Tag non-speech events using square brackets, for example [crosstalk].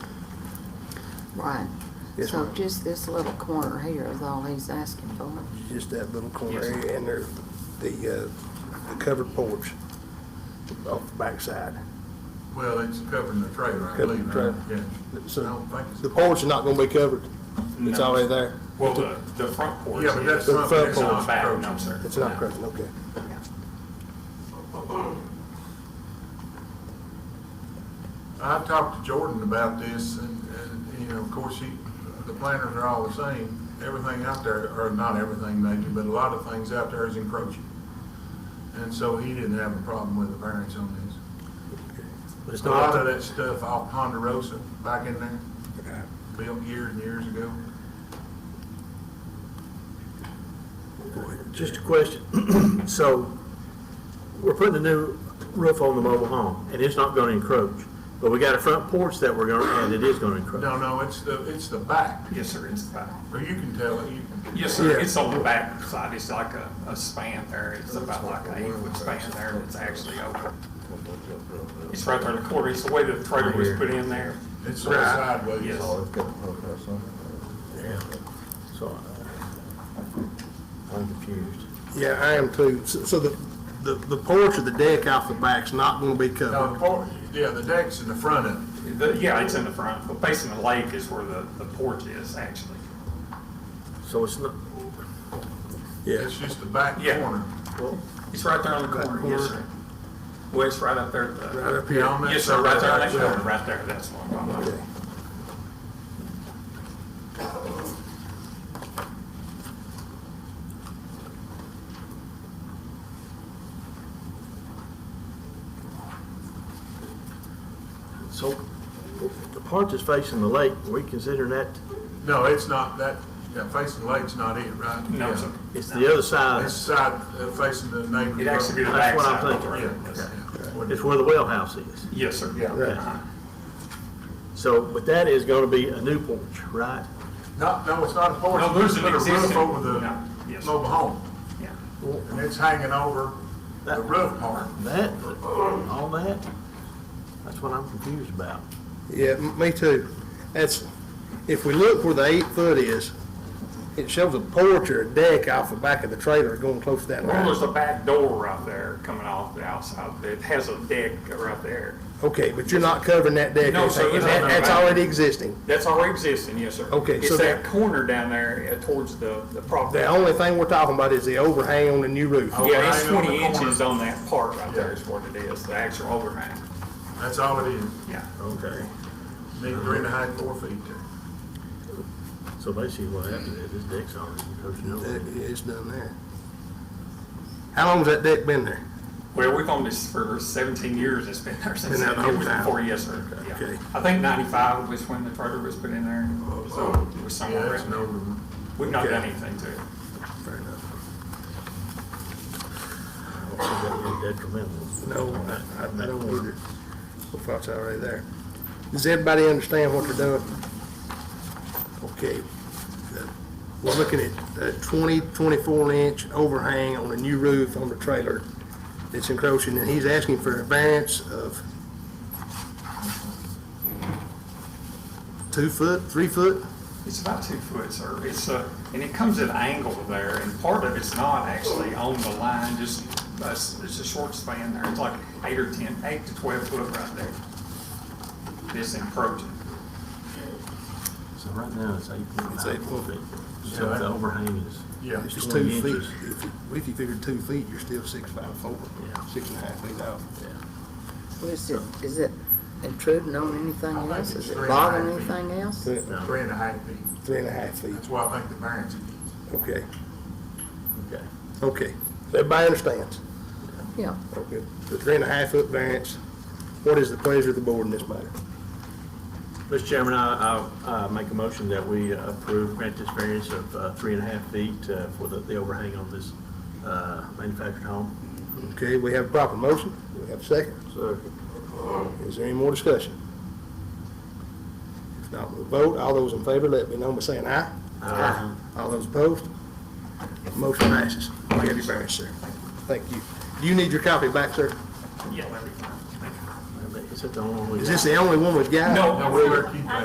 Right. Yes, So ma'am. just this little corner here is all he's asking for. Just that little corner Yes, ma'am. area and there, the, uh, the covered porch off the backside. Well, it's covering the trailer, I Covered believe, trailer. right? Yeah. I So don't think it's. the porch is not gonna be covered. It's No. already there. Well, the, the front porch. Yeah, but that's is- The not, front that's It's not not back, approaching. no, sir. It's not No. covered, okay. I've talked to Jordan about this, and, and, you know, of course, he, the planters are all the same. Everything out there, or not everything maybe, but a lot of things out there is encroaching. And so he didn't have a problem with the variance on this. But it's A lot not, of that stuff off Ponderosa, back in there, built years and years ago. just a question. [clears throat] So we're putting a new roof on the mobile home and it's not gonna encroach. But we got a front porch that we're gonna, and it is gonna encroach. No, no, it's the, it's the back, Yes, sir, it's the back. or you can tell it, you can. Yes, sir, it's on the back side, it's like a, a span there, it's about like an eight foot span there, and it's actually open. It's right there in the corner, it's the way that the trailer was put in there. It's sort of sideways. Yes. So I- I'm confused. Yeah, I am too. So so the, the, the porch or the deck off the back's not gonna be No, covered. the por- yeah, the deck's in the front of it. The- yeah, it's in the front, but facing the lake is where the, the porch is, actually. So it's not, Yeah. It's just the back Yeah. corner. It's right there on the corner, yes, sir. Well, it's right up there at the. Right up Yeah, here. on that Yes, sir, right there, on that side. corner, right there, that's what I'm talking about. Okay. so the part that's facing the lake, are we considering that, No, it's not that, yeah, facing the lake's not it, right? No, Yeah. sir. it's the other side. It's side, uh, facing the neighborhood. It'd actually be the That's back what I'm side. of the Yeah, trailer, yes. yeah. It's where the well house is. Yes, sir. Right. Uh-huh. So, but that is gonna be a new porch, right? No, no, it's not a porch. No, there's It's an put a existing- Roof over the No, yes. mobile home, Yeah. and it's hanging over the That- roof part. That, all that, that's what I'm confused about. Yeah, m- me too. That's, if we look where the eight foot is, it shows a porch or a deck off the back of the trailer going close to that Well, line. there's a back door right there coming off the outside. It has a deck right there. Okay, but you're not covering that deck. No, sir, anything. it's That- not That's about- already existing. That's already existing, yes, sir. Okay, so It's that corner down there uh, towards the, the property. The only thing we're talking about is the overhang on the new roof. Yeah, it's Overhang on the twenty corner. inches on that part right there Yeah. is what it is, the actual overhang. That's all it is. Yeah. Okay. Need three and a half, four feet there. So basically what happened is this deck's already That encroaching. is done there. How long's that deck been there? Well, we've owned this for seventeen years. It's been there since. Been there the it whole was time. Before, yes, sir. Yeah. Okay. I think ninety-five was when the trailer was put in there. So it was Oh, Yeah, somewhere that's around no there. room. We've not Okay. done anything to it. Fair enough. Detrimental. No, I, I don't either. If that's already there. Does everybody understand what they're doing? Okay. We're looking at a 20, 24 inch overhang on a new roof on the trailer that's encroaching, and he's asking for a variance of two foot, three foot? It's about two foot, sir. It's a, and it comes at an angle there, and part of it's not actually on the line, just, it's, it's a short span there. It's like eight or ten, eight to twelve foot right there. This encroaching. So right now, it's eight point It's eight foot. nine feet. So the overhang is, Yeah. It's two Twenty feet. inches. If you- If you figure two feet, you're still six, five, four, Yeah. six and a half feet out. Is it, is it intruding on anything I think else? it's Is it three and a half bothering feet. anything else? Three Three and a half feet. three and a half feet, That's why I think the variance is. okay. okay. Okay, everybody understands. Yeah. Okay. The three and a half foot variance, what is the pleasure of the board in this matter? Mr. Chairman, I, I, uh make a motion that we approve, grant this variance of, uh, three and a half feet, uh, for the, the overhang on this, uh, manufactured home. Okay, we have a proper motion, we have a second. Sir. Is there any more discussion? If not, we'll vote, all those in favor, let me know by saying aye. Aye. All those opposed? Motion passes. You have your variance, sir. Thank you. Do you need your copy back, sir? Yeah, that'd be fine. Thank you. Is that the only one we got? Is this the only one we've got? No, No, we're,